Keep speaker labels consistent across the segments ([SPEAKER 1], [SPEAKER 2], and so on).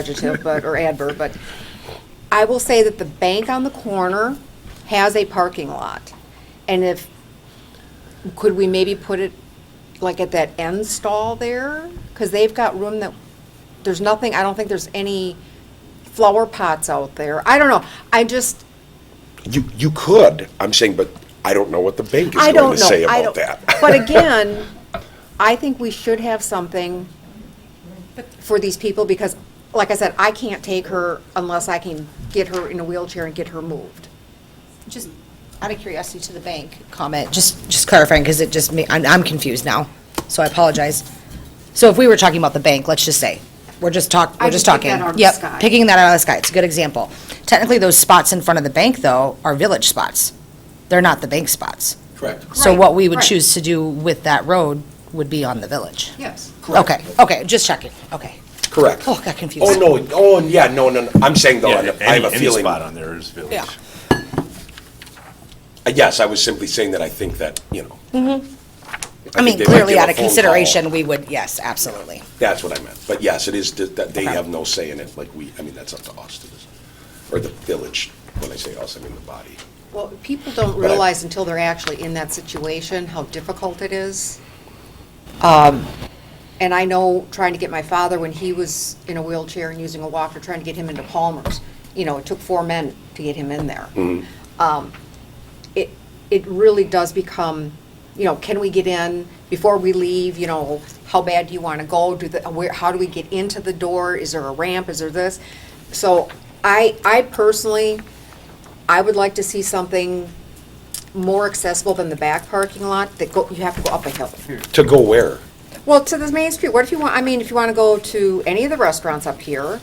[SPEAKER 1] adjective, but, or adverb, but I will say that the bank on the corner has a parking lot. And if, could we maybe put it like at that end stall there? Because they've got room that, there's nothing, I don't think there's any flower pots out there. I don't know. I just,
[SPEAKER 2] You, you could, I'm saying, but I don't know what the bank is
[SPEAKER 1] I
[SPEAKER 2] going
[SPEAKER 1] don't
[SPEAKER 2] to
[SPEAKER 1] know.
[SPEAKER 2] say
[SPEAKER 1] I
[SPEAKER 2] about
[SPEAKER 1] don't-
[SPEAKER 2] that.
[SPEAKER 1] But again, I think we should have something for these people because, like I said, I can't take her unless I can get her in a wheelchair and get her moved.
[SPEAKER 3] Just out of curiosity to the bank comment, just, just clarifying, because it just, ma- I'm, I'm confused now, so I apologize. So if we were talking about the bank, let's just say, we're just talk,
[SPEAKER 1] I
[SPEAKER 3] we're just
[SPEAKER 1] can pick
[SPEAKER 3] talking.
[SPEAKER 1] that out of the sky.
[SPEAKER 3] Yep, picking that out of the sky, it's a good example. Technically, those spots in front of the bank, though, are village spots. They're not the bank spots.
[SPEAKER 4] Correct.
[SPEAKER 3] So
[SPEAKER 1] Right,
[SPEAKER 3] what we would
[SPEAKER 1] right.
[SPEAKER 3] choose to do with that road would be on the village.
[SPEAKER 1] Yes.
[SPEAKER 3] Okay, okay, just checking, okay.
[SPEAKER 2] Correct.
[SPEAKER 3] Oh, got confused.
[SPEAKER 2] Oh, no, oh, yeah, no, no, no, I'm saying though,
[SPEAKER 4] Yeah,
[SPEAKER 2] I have a
[SPEAKER 4] any- any
[SPEAKER 2] feeling,
[SPEAKER 4] spot on there is village.
[SPEAKER 3] Yeah.
[SPEAKER 2] yes, I was simply saying that I think that, you know.
[SPEAKER 3] Mm-hmm. I
[SPEAKER 2] think
[SPEAKER 3] mean,
[SPEAKER 2] they might
[SPEAKER 3] clearly
[SPEAKER 2] give a
[SPEAKER 3] out
[SPEAKER 2] phone
[SPEAKER 3] of
[SPEAKER 2] call.
[SPEAKER 3] consideration, we would, yes, absolutely.
[SPEAKER 2] That's what I meant, but yes, it is, th- that they have no say in it, like we, I mean, that's up to us to, decide. or the village, when I say us, I mean the body.
[SPEAKER 1] Well, people don't
[SPEAKER 2] But I-
[SPEAKER 1] realize until they're actually in that situation how difficult it is. Um, And I know trying to get my father, when he was in a wheelchair and using a walker, trying to get him into Palmer's, you know, it took four men to get him in there. Um, It, it really does become, you know, can we get in before we leave, you know, how bad do you want to go? Do the, where, how do we get into the door? Is there a ramp? Is there this? So I, I personally, I would like to see something more accessible than the back parking lot that go, you have to go up a hill.
[SPEAKER 5] Hmm.
[SPEAKER 2] To go where?
[SPEAKER 1] Well, to the main street, what if you want, I mean, if you want to go to any of the restaurants up here,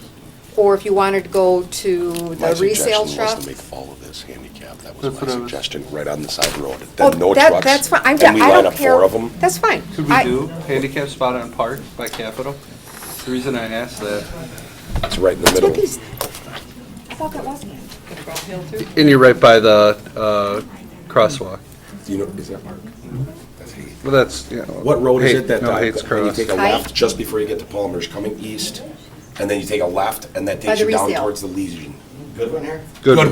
[SPEAKER 1] or if you wanted to go to
[SPEAKER 2] My
[SPEAKER 1] the resale
[SPEAKER 2] suggestion
[SPEAKER 1] shop.
[SPEAKER 2] was to make all of this handicap, that
[SPEAKER 5] That's
[SPEAKER 2] was my
[SPEAKER 5] what I was-
[SPEAKER 2] suggestion, right on the side road,
[SPEAKER 1] Oh,
[SPEAKER 2] then no
[SPEAKER 1] that-
[SPEAKER 2] trucks.
[SPEAKER 1] That's fine, I'm,
[SPEAKER 2] and
[SPEAKER 1] I don't
[SPEAKER 2] we line
[SPEAKER 1] care.
[SPEAKER 2] up four of them,
[SPEAKER 1] That's fine.
[SPEAKER 5] Could we
[SPEAKER 1] I-
[SPEAKER 5] do handicap spot on Park by Capitol? The reason I asked that.
[SPEAKER 2] it's right in the
[SPEAKER 1] Look,
[SPEAKER 2] middle.
[SPEAKER 1] he's- I thought that wasn't it.
[SPEAKER 5] And you're right by the uh, crosswalk.
[SPEAKER 2] You know, is that Mark? That's Hayes.
[SPEAKER 5] Well, that's, you know.
[SPEAKER 2] What road is
[SPEAKER 5] Hay-
[SPEAKER 2] it that,
[SPEAKER 5] No,
[SPEAKER 2] uh,
[SPEAKER 5] Hates
[SPEAKER 2] when you
[SPEAKER 5] Cross.
[SPEAKER 2] take a
[SPEAKER 1] Haight?
[SPEAKER 2] left just before you get to Palmer's, coming east, and then you take a left, and that
[SPEAKER 1] By
[SPEAKER 2] takes
[SPEAKER 1] the
[SPEAKER 2] you down
[SPEAKER 1] resale.
[SPEAKER 2] towards the Legion? Goodwin here?
[SPEAKER 5] Goodwin.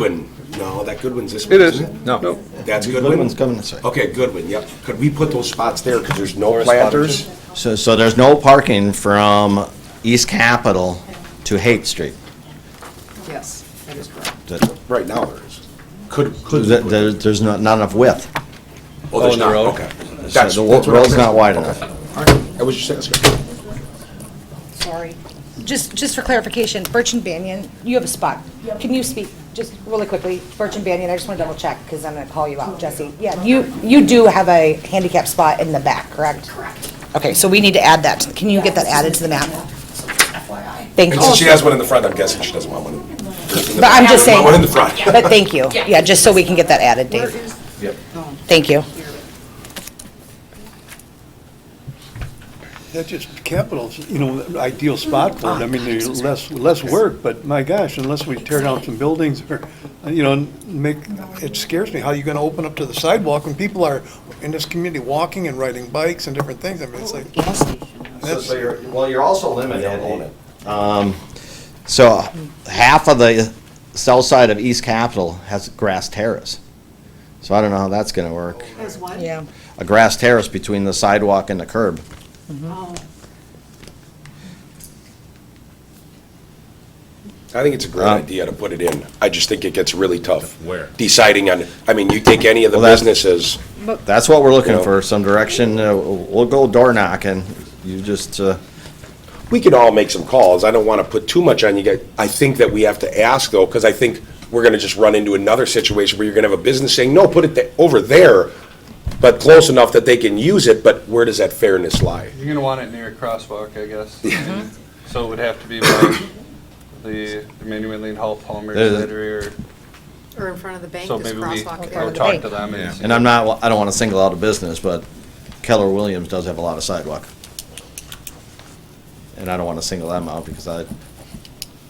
[SPEAKER 2] Goodwin. No, that Goodwin's this
[SPEAKER 5] It
[SPEAKER 2] one,
[SPEAKER 5] is.
[SPEAKER 2] isn't it?
[SPEAKER 5] No.
[SPEAKER 2] That's Goodwin?
[SPEAKER 6] Goodwin's coming this way.
[SPEAKER 2] Okay, Goodwin, yep. Could we put those spots there, because there's no planters?
[SPEAKER 6] So, so there's no parking from East Capitol to Haight Street.
[SPEAKER 1] Yes, that is correct.
[SPEAKER 6] Th-
[SPEAKER 2] Right now there is. Could, could. we
[SPEAKER 6] th-
[SPEAKER 2] put-
[SPEAKER 6] there- There's not, not enough width.
[SPEAKER 2] Oh, there's
[SPEAKER 5] on the
[SPEAKER 2] not,
[SPEAKER 5] road?
[SPEAKER 2] okay. That's-
[SPEAKER 6] So
[SPEAKER 2] that's
[SPEAKER 6] The
[SPEAKER 2] what
[SPEAKER 6] wo-
[SPEAKER 2] I'm
[SPEAKER 6] road's
[SPEAKER 2] saying.
[SPEAKER 6] not wide
[SPEAKER 2] Okay.
[SPEAKER 6] enough.
[SPEAKER 2] All right, I was just saying, that's good.
[SPEAKER 1] Sorry.
[SPEAKER 3] Just, just for clarification, Birch and Banyan, you have a spot. Can you speak, just really quickly, Birch and Banyan, I just want to double check, because I'm going to call you out, Jesse. Yeah, you, you do have a handicap spot in the back, correct? Correct. Okay, so we need to add that. Can you get that added to the map? Thank
[SPEAKER 6] Oh,
[SPEAKER 2] And since she
[SPEAKER 3] you.
[SPEAKER 2] has one in the front, I'm guessing she doesn't want one in.
[SPEAKER 3] But I'm just saying,
[SPEAKER 2] One in the front.
[SPEAKER 3] but thank you. Yeah, just so we can get that added, Dave. Thank you.
[SPEAKER 7] That's just capitals, you know, ideal spot
[SPEAKER 3] Oh,
[SPEAKER 7] for it. I mean, there's less, less work, but my gosh, unless we tear down some buildings or, you know, and make, it scares me how you're gonna open up to the sidewalk when people are in this community walking and riding bikes and different things. I mean, it's
[SPEAKER 3] Oh,
[SPEAKER 7] like,
[SPEAKER 1] Gas station.
[SPEAKER 6] So- So you're, well, you're also
[SPEAKER 2] They don't own
[SPEAKER 6] limited.
[SPEAKER 2] it.
[SPEAKER 6] Um, So half of the south side of East Capitol has grass terrace. So I don't know how that's gonna work.
[SPEAKER 1] There's one?
[SPEAKER 3] Yeah.
[SPEAKER 6] A grass terrace between the sidewalk and the curb.
[SPEAKER 1] Oh.
[SPEAKER 2] I think it's a great
[SPEAKER 6] Um,
[SPEAKER 2] idea to put it in. I just think it gets really tough.
[SPEAKER 4] Where?
[SPEAKER 2] Deciding on, I mean, you take any of the
[SPEAKER 6] Well, that's-
[SPEAKER 2] businesses,
[SPEAKER 6] That's what we're looking
[SPEAKER 2] Yeah.
[SPEAKER 6] for, some direction. Uh, We'll go door knocking. You just, uh,
[SPEAKER 2] we could all make some calls. I don't want to put too much on you guys. I think that we have to ask though, because I think we're going to just run into another situation where you're going to have a business saying, no, put it th- over there, but close enough that they can use it, but where does that fairness lie?
[SPEAKER 5] You're gonna want it near a crosswalk, I guess.
[SPEAKER 1] Mm-hmm.
[SPEAKER 5] So it would have to be by the Emmanuel Lane Hall, Palmer,
[SPEAKER 6] There's-
[SPEAKER 5] Slidery, or,
[SPEAKER 1] Or in front of the bank,
[SPEAKER 5] so
[SPEAKER 1] there's
[SPEAKER 5] maybe
[SPEAKER 1] a
[SPEAKER 5] we
[SPEAKER 1] crosswalk
[SPEAKER 5] go
[SPEAKER 1] there.
[SPEAKER 5] talk to them and see.
[SPEAKER 6] And I'm not, I don't want to single out a business, but Keller Williams does have a lot of sidewalk. And I don't want to single them out because I,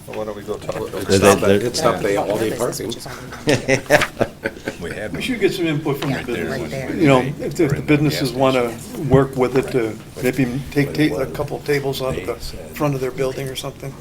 [SPEAKER 5] Why don't we go talk to them?
[SPEAKER 2] It's not that,
[SPEAKER 6] they-
[SPEAKER 2] it's not they all day parking.
[SPEAKER 4] We had
[SPEAKER 7] we should get some input from the
[SPEAKER 3] Yeah, right there.
[SPEAKER 7] businesses. You know, if if the businesses wanna work with it to maybe take, take a couple tables out of the front of their building or something.